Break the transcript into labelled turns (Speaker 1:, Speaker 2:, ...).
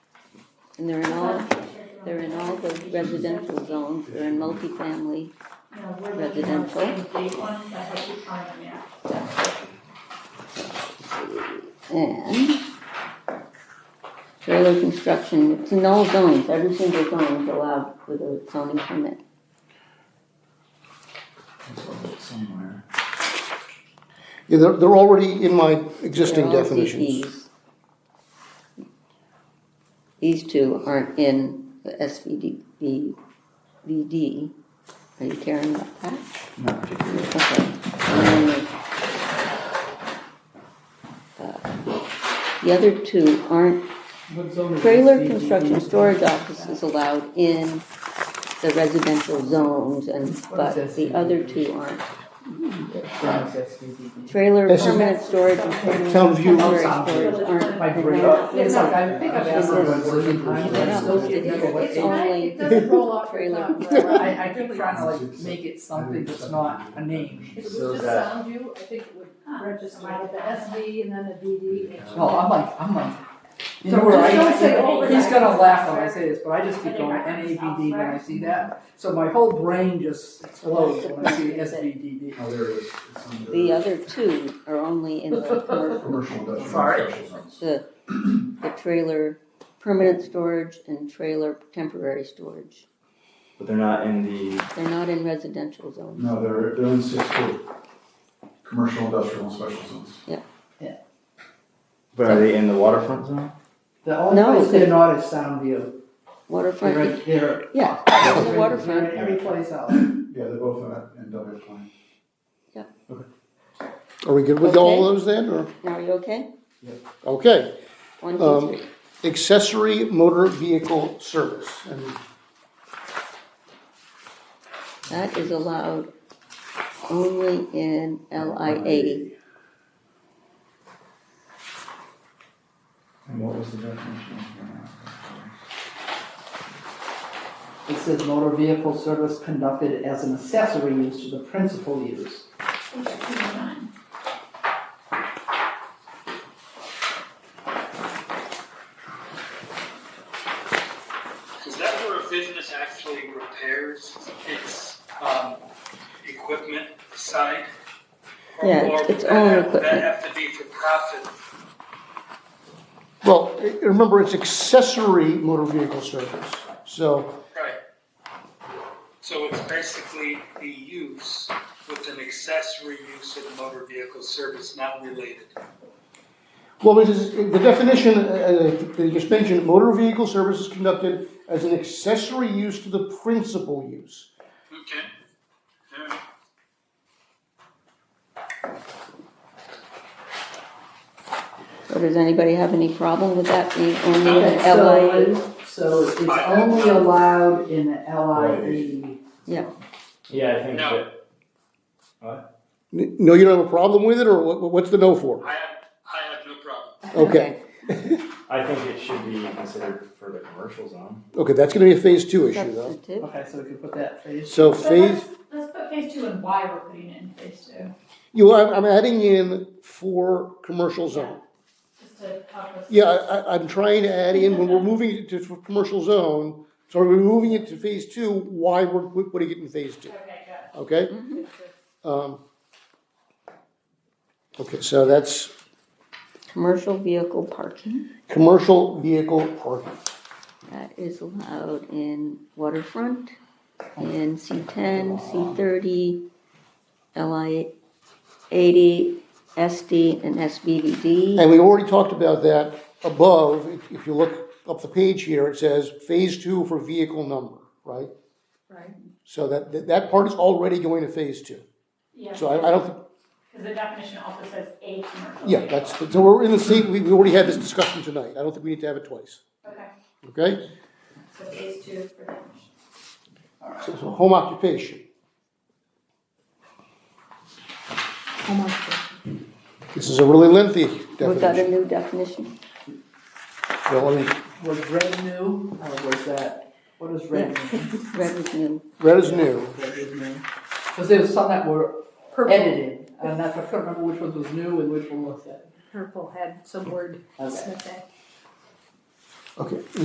Speaker 1: And they're in all, they're in all the residential zones, they're in multifamily.
Speaker 2: No, we're looking at the same big one, I hope you find them, yeah.
Speaker 1: And trailer construction, it's in all zones, every single zone is allowed with a zoning permit.
Speaker 3: somewhere.
Speaker 4: Yeah, they're, they're already in my existing
Speaker 1: They're all E.
Speaker 4: definitions.
Speaker 1: CPs. These two aren't in the SVD, V- VD. Are you caring about that?
Speaker 3: Not particularly.
Speaker 1: Okay. Um, And then the- uh, The other two aren't, trailer construction storage office is allowed in the residential zones and, but the other two aren't. Trailer
Speaker 4: This is-
Speaker 1: permanent storage and permanent
Speaker 4: Town view.
Speaker 1: temporary storage aren't.
Speaker 5: Like,
Speaker 1: and
Speaker 5: bring
Speaker 1: they're not-
Speaker 5: up, it's like, I think I've asked
Speaker 1: This is-
Speaker 5: everyone working
Speaker 1: I
Speaker 5: time, but I
Speaker 1: don't know,
Speaker 5: still
Speaker 1: it-
Speaker 5: can't remember what
Speaker 1: It's
Speaker 5: they.
Speaker 1: only,
Speaker 6: It doesn't roll off your
Speaker 1: Trailer.
Speaker 6: tongue. right?
Speaker 5: I, I keep trying to like make it something that's not a name.
Speaker 6: If it was
Speaker 3: So
Speaker 6: just
Speaker 3: that-
Speaker 6: sound view, I think it would register with the SV and then a DD. and-
Speaker 3: Oh,
Speaker 5: Well, I'm like, I'm like, you
Speaker 6: So
Speaker 5: know where
Speaker 6: just
Speaker 5: I,
Speaker 6: don't say overnight.
Speaker 5: he's gonna laugh when I say this, but I just keep going N A V D when I see that. So my whole brain just explodes when I see S V D D.
Speaker 3: Oh, there it is. It's under
Speaker 1: the other two are only in the commercial
Speaker 3: Commercial industrial.
Speaker 5: Sorry.
Speaker 3: and special zones.
Speaker 1: the, the trailer, permanent storage and trailer temporary storage.
Speaker 7: But they're not in the,
Speaker 1: They're not in residential zones.
Speaker 3: No, they're, they're in six two. Commercial industrial and special zones.
Speaker 7: but are they in the waterfront zone?
Speaker 5: The only
Speaker 1: No,
Speaker 5: place
Speaker 1: they-
Speaker 5: they're not is Soundview. They're,
Speaker 1: Waterfront,
Speaker 5: right- they're.
Speaker 1: yeah,
Speaker 5: they're
Speaker 1: the
Speaker 5: in-
Speaker 1: waterfront.
Speaker 5: they're in Every place else.
Speaker 3: Yeah, they're both in, that- in W twenty.
Speaker 4: Are we good with all those then, or?
Speaker 1: Now, are you okay?
Speaker 4: Okay,
Speaker 1: One,
Speaker 4: Um,
Speaker 1: two, three.
Speaker 4: accessory motor vehicle service. And
Speaker 1: That is allowed only in LIA.
Speaker 3: And what was the definition?
Speaker 5: It says motor vehicle service conducted as an accessory use to the principal use.
Speaker 8: Is that where a business actually repairs its, um, equipment side? Or-
Speaker 1: Yeah,
Speaker 8: or
Speaker 1: it's-
Speaker 8: would
Speaker 1: it's
Speaker 8: that
Speaker 1: own
Speaker 8: have- would
Speaker 1: equipment.
Speaker 8: That have to be for profit,
Speaker 4: Well, i- remember, it's accessory motor vehicle service. So,
Speaker 8: right? So it's basically the use with an accessory use of the motor vehicle service not related.
Speaker 4: well, because the definition, uh, uh, the expansion, motor vehicle service is conducted as an accessory use to the principal use.
Speaker 8: Okay. All right.
Speaker 1: So does anybody have any problem with that being only in
Speaker 5: Okay, so
Speaker 1: LIA?
Speaker 5: it- So it's only allowed in the E. LIE.
Speaker 7: Yeah, I think
Speaker 8: No.
Speaker 7: that,
Speaker 4: N- No, you don't have a problem with it, or what- what's the no for?
Speaker 8: I have, I have no problem.
Speaker 4: Okay,
Speaker 7: I think it should be considered for the commercial zone.
Speaker 4: okay, that's gonna be a phase two issue, though.
Speaker 1: Substantive.
Speaker 5: Okay, so we can put that phrase.
Speaker 4: So
Speaker 2: So
Speaker 4: phase,
Speaker 2: let's, let's put phase two and why we're putting it in phase two,
Speaker 4: you, I'm, I'm adding in for commercial zone.
Speaker 2: just to help us.
Speaker 4: Yeah, I, I, I'm trying to add in, when we're moving it to, to commercial zone, so we're moving it to phase two, why we're pu- putting it in phase two,
Speaker 2: Okay, got
Speaker 4: okay?
Speaker 2: it.
Speaker 4: Um, Okay, so that's
Speaker 1: Commercial vehicle parking,
Speaker 4: commercial vehicle parking.
Speaker 1: that is allowed in waterfront, in C ten, C thirty, LIA eighty, SD, and SBVD.
Speaker 4: And we already talked about that above, if- if you look up the page here, it says phase two for vehicle number, right?
Speaker 6: Right.
Speaker 4: So that, that- that part is already going to phase two.
Speaker 2: Yeah.
Speaker 4: So I, I don't, think-
Speaker 2: Because the definition also says a commercial.
Speaker 4: yeah, that's, so we're in the same, we, we already had this discussion tonight, I don't think we need to have it twice,
Speaker 2: Okay,
Speaker 4: okay?
Speaker 2: so phase two for definition.
Speaker 4: So, so home occupation.
Speaker 6: Home occupation.
Speaker 4: This is a really lengthy
Speaker 1: We've got a
Speaker 4: definition.
Speaker 1: new definition.
Speaker 4: Well, I mean,
Speaker 5: Was red new, or was that, what is red new?
Speaker 1: Red is new.
Speaker 4: red is new.
Speaker 5: Red is new. Because there was some that were
Speaker 6: Purple,
Speaker 5: edited, and that's, I couldn't remember which one was new and which one was edited.
Speaker 6: purple had some word
Speaker 5: Okay.
Speaker 6: snippet.
Speaker 4: Okay,